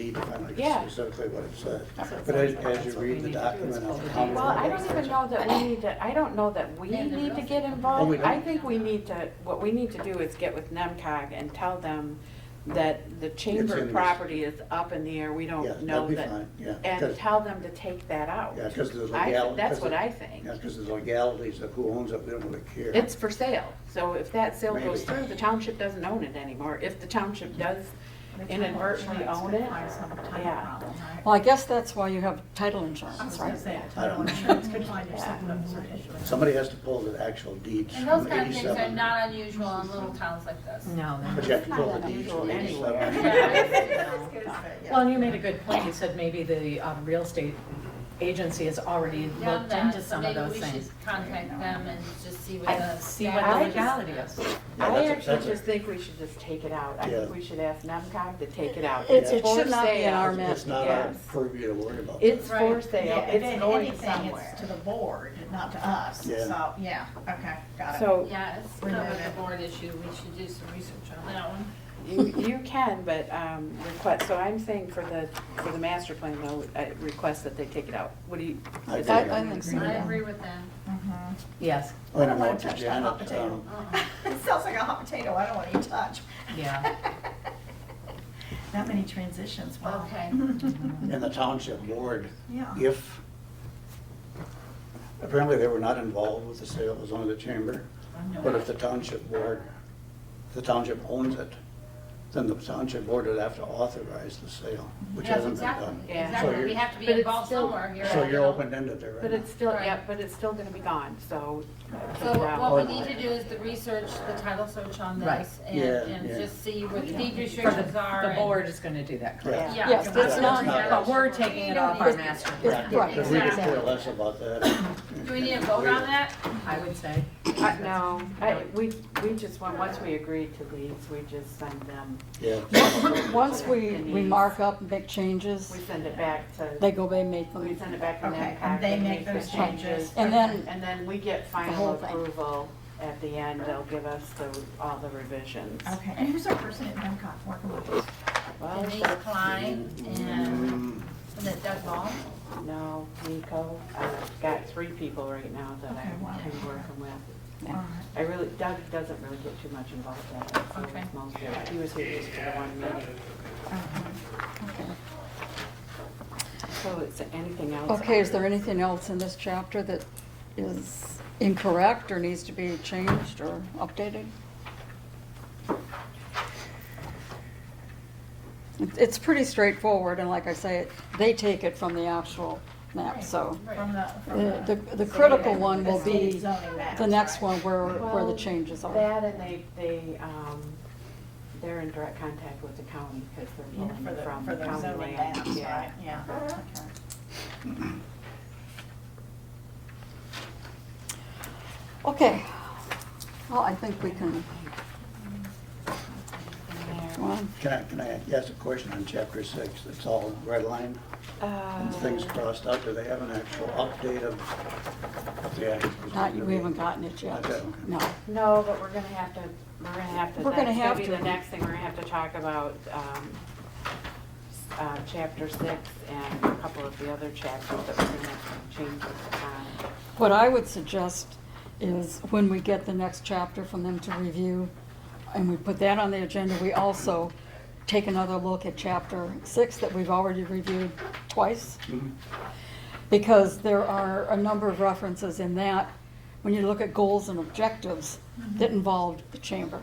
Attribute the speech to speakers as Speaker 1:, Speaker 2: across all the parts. Speaker 1: I don't
Speaker 2: Yeah.
Speaker 1: know specifically what it says.
Speaker 2: That's what it
Speaker 1: But as,
Speaker 2: sounds like.
Speaker 1: as you
Speaker 2: That's what we
Speaker 1: read the
Speaker 2: need to do is
Speaker 1: document
Speaker 2: pull
Speaker 1: on
Speaker 2: the
Speaker 1: how.
Speaker 2: data.
Speaker 3: Well, I don't even know that we need to, I don't know that we
Speaker 4: Yeah, the
Speaker 3: need to
Speaker 4: girls-
Speaker 3: get
Speaker 1: Oh, we
Speaker 3: involved.
Speaker 1: don't?
Speaker 3: I think we need to, what we need to do is get with NEMCOG and tell them that the
Speaker 1: in
Speaker 3: chamber
Speaker 1: this.
Speaker 3: property is up in the air, we
Speaker 1: Yeah,
Speaker 3: don't know
Speaker 1: that'd be
Speaker 3: that.
Speaker 1: fine, yeah.
Speaker 3: And
Speaker 1: 'cause-
Speaker 3: tell them to take that out.
Speaker 1: Yeah, because there's
Speaker 3: I thi-
Speaker 1: legalities.
Speaker 3: That's what I think.
Speaker 1: Yeah, because there's legalities of who owns it, we don't really care.
Speaker 3: It's for sale, so if that sale
Speaker 1: Maybe.
Speaker 3: goes through, the township doesn't own it anymore. If the township does inadvertently own it, yeah.
Speaker 5: Well, I guess that's why you have title
Speaker 4: I was
Speaker 5: insurance,
Speaker 4: gonna
Speaker 5: right?
Speaker 4: say,
Speaker 1: I
Speaker 4: I
Speaker 1: don't
Speaker 4: title
Speaker 1: know.
Speaker 4: insurance could find yourself with a certain issue.
Speaker 1: Somebody has to pull the actual deeds
Speaker 6: And
Speaker 1: from
Speaker 6: those kind of things are
Speaker 1: eighty-seven.
Speaker 6: not unusual in little towns like this.
Speaker 4: No.
Speaker 1: But you have to
Speaker 3: It's
Speaker 1: pull
Speaker 3: not
Speaker 1: the
Speaker 3: that
Speaker 1: deeds from
Speaker 3: unusual anywhere.
Speaker 1: eighty-seven.
Speaker 6: Yeah.
Speaker 4: Well, and you made a good point. You said maybe the um, real estate agency has already
Speaker 6: Done
Speaker 4: looked
Speaker 6: that,
Speaker 4: into
Speaker 6: so
Speaker 4: some of
Speaker 6: maybe
Speaker 4: those
Speaker 6: we should
Speaker 4: things.
Speaker 6: contact them and just see what the.
Speaker 4: And see what
Speaker 3: I
Speaker 4: the
Speaker 3: just-
Speaker 4: legality is.
Speaker 1: Yeah,
Speaker 3: I
Speaker 1: that's a-
Speaker 3: actually
Speaker 1: that's a-
Speaker 3: just think we should just take it out. I think
Speaker 1: Yeah.
Speaker 3: we should ask NEMCOG to take it out.
Speaker 5: It's-
Speaker 1: it
Speaker 3: For
Speaker 5: should not be in
Speaker 3: sale.
Speaker 5: our
Speaker 1: It's- It's not our
Speaker 3: Yes.
Speaker 1: purview to worry about.
Speaker 3: It's
Speaker 6: Right.
Speaker 3: for sale, it's going somewhere.
Speaker 4: to the board, not to us.
Speaker 1: Yeah. So,
Speaker 4: yeah, okay,
Speaker 3: So
Speaker 6: Yeah, it's kind of a board issue, we should do some research on that one.
Speaker 3: you, you can, but um, request, so I'm saying for the, for the master plan though, I request that they take it out. What do you?
Speaker 1: I think-
Speaker 3: is that-
Speaker 5: I- I think so.
Speaker 6: I agree with that.
Speaker 4: Yes,
Speaker 1: I don't know,
Speaker 7: wanna touch that hot
Speaker 1: Janet,
Speaker 7: potato.
Speaker 1: um,
Speaker 6: Uh-uh.
Speaker 7: It sounds like a hot potato, I don't want to touch.
Speaker 4: yeah.
Speaker 7: That many transitions, wow.
Speaker 6: Okay.
Speaker 1: and the township board,
Speaker 7: Yeah.
Speaker 1: if, apparently they were not involved with the sale, it was only the chamber. But if the township board, if the township owns it, then the township board would have to authorize the sale, which
Speaker 6: Yes,
Speaker 1: hasn't been
Speaker 6: exactly,
Speaker 1: done.
Speaker 3: Yeah.
Speaker 1: So
Speaker 6: exactly,
Speaker 1: you're-
Speaker 6: we have to be
Speaker 3: But it's
Speaker 6: involved
Speaker 3: still-
Speaker 6: somewhere here.
Speaker 1: So you're open-ended there right now.
Speaker 3: But it's still, yeah,
Speaker 6: Right.
Speaker 3: but it's still gonna be gone, so. uh,
Speaker 6: So
Speaker 3: take it out.
Speaker 6: what we need to do is the research, the title search on this,
Speaker 4: Right.
Speaker 6: and,
Speaker 1: Yeah,
Speaker 6: and
Speaker 1: yeah.
Speaker 6: just see what the deed
Speaker 4: For the,
Speaker 6: restrictions are.
Speaker 4: the
Speaker 6: and-
Speaker 4: board is gonna do that, correct?
Speaker 1: Correct.
Speaker 3: Yeah.
Speaker 5: Yes,
Speaker 1: that's
Speaker 6: Yeah.
Speaker 1: not-
Speaker 4: But we're taking it off our master
Speaker 1: Correct,
Speaker 4: plan,
Speaker 5: Right.
Speaker 1: because we could care
Speaker 6: Exactly.
Speaker 1: less about that.
Speaker 6: Do we need a vote on that?
Speaker 4: I would say.
Speaker 3: Uh, No, I, we, we just want, once we agree to these, we just send them,
Speaker 1: Yeah.
Speaker 5: Once we, we mark up and make
Speaker 3: we
Speaker 5: changes,
Speaker 3: send it back to,
Speaker 5: they go, they make
Speaker 3: we
Speaker 5: them.
Speaker 3: send it back to
Speaker 7: Okay,
Speaker 3: NEMCOG.
Speaker 7: and they make
Speaker 3: the
Speaker 7: those changes.
Speaker 5: And then,
Speaker 3: And then we get
Speaker 5: The whole
Speaker 3: final
Speaker 5: thing.
Speaker 3: approval at the end, they'll give us the, all the revisions.
Speaker 7: Okay, and who's our person at MCOT working with us?
Speaker 3: Well,
Speaker 6: Denise Klein and,
Speaker 1: Mm,
Speaker 6: was it Doug Ball?
Speaker 3: no, Nico, I've got three people right now that
Speaker 7: Okay, wow.
Speaker 3: I'm kind of working with.
Speaker 7: All right.
Speaker 3: I really, Doug doesn't really get too much involved in it, so
Speaker 6: Okay.
Speaker 3: it's mostly, he was here just for the one meeting.
Speaker 7: Uh-huh.
Speaker 3: So is there anything else?
Speaker 5: okay, is there anything else in this chapter that is incorrect or needs to be changed or updated? It- It's pretty straightforward, and like I say, they take it from the actual map, so
Speaker 7: From the, from
Speaker 5: the,
Speaker 7: the.
Speaker 5: the- the critical one will be
Speaker 7: Zoning maps,
Speaker 5: the next
Speaker 7: right.
Speaker 5: one where, where the
Speaker 3: Well,
Speaker 5: changes are.
Speaker 3: That and they, they, um, they're in direct contact with the county because they're
Speaker 7: Yeah,
Speaker 3: pulling
Speaker 7: For the,
Speaker 3: from
Speaker 7: for
Speaker 3: the
Speaker 7: the
Speaker 3: county
Speaker 7: zoning
Speaker 3: land.
Speaker 7: maps,
Speaker 3: Yeah.
Speaker 7: right, yeah. Okay.
Speaker 5: Okay. Well, I think we can, go on.
Speaker 1: Can I, can I ask a question on chapter six? It's all red line
Speaker 5: Uh,
Speaker 1: and things crossed out. Do they have an actual update of what the act is
Speaker 5: Not,
Speaker 1: gonna
Speaker 5: we
Speaker 1: be?
Speaker 5: haven't gotten it yet.
Speaker 1: Okay.
Speaker 5: No.
Speaker 3: No, but we're gonna have to, we're gonna have to.
Speaker 5: We're gonna
Speaker 3: that's
Speaker 5: have
Speaker 3: be
Speaker 5: to.
Speaker 3: The next thing, we're gonna have to talk about, um, uh, chapter six and a couple of the other chapters that we're gonna have to change on.
Speaker 5: What I would suggest is when we get the next chapter from them to review, and we put that on the agenda, we also take another look at chapter six that we've already reviewed twice. Because there are a number of references in that, when you look at goals and objectives, that involved the chamber.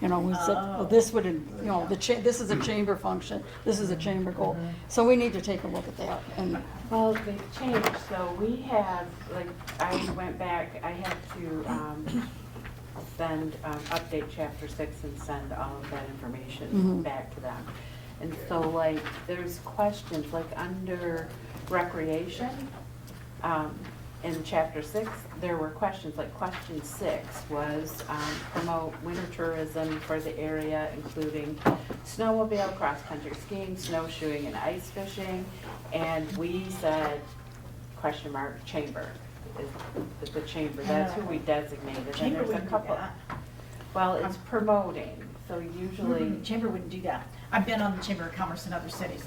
Speaker 5: You know, we said, well, this would, in- you know, the cha, this is a chamber function, this is a chamber goal. So we need to take a look at that and
Speaker 3: Well, they changed, so we have, like, I went back, I had to, um, send, um, update chapter six and send all of that information
Speaker 5: Mhm.
Speaker 3: back to them. And so like, there's questions, like, under recreation, um, in chapter six, there were questions, like question six was, um, promote winter tourism for the area, including snowmobile, cross-country skiing, snowshoeing, and ice fishing. And we said, question mark, chamber, is, is the chamber, that's who we designated. And
Speaker 7: Chamber
Speaker 3: there's a
Speaker 7: wouldn't do
Speaker 3: couple.
Speaker 7: that.
Speaker 3: Well, it's promoting, so
Speaker 7: Mm,
Speaker 3: usually,
Speaker 7: Mm-hmm. Chamber wouldn't do that. I've been on the Chamber of Commerce in other cities.